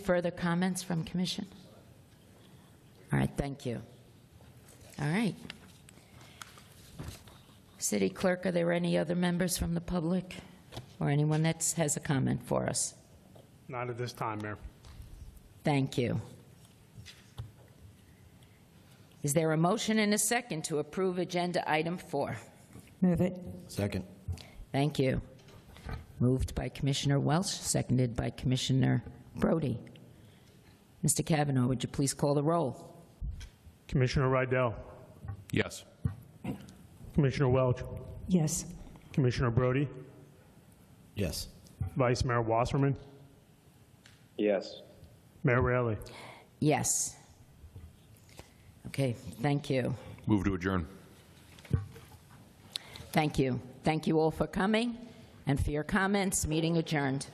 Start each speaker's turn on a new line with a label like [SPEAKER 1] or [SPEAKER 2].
[SPEAKER 1] Further comments from commission? All right, thank you. All right. City Clerk, are there any other members from the public or anyone that has a comment for us?
[SPEAKER 2] Not at this time, Mayor.
[SPEAKER 1] Thank you. Is there a motion and a second to approve Agenda Item 4?
[SPEAKER 3] Move it.
[SPEAKER 4] Second.
[SPEAKER 1] Thank you. Moved by Commissioner Welch, seconded by Commissioner Brody. Mr. Kavanaugh, would you please call the roll?
[SPEAKER 2] Commissioner Rydell,
[SPEAKER 5] Yes.
[SPEAKER 2] Commissioner Welch,
[SPEAKER 3] Yes.
[SPEAKER 2] Commissioner Brody,
[SPEAKER 4] Yes.
[SPEAKER 2] Vice Mayor Wasserman,
[SPEAKER 6] Yes.
[SPEAKER 2] Mayor Raley.
[SPEAKER 1] Yes. Okay, thank you.
[SPEAKER 5] Move to adjourn.
[SPEAKER 1] Thank you. Thank you all for coming and for your comments. Meeting adjourned.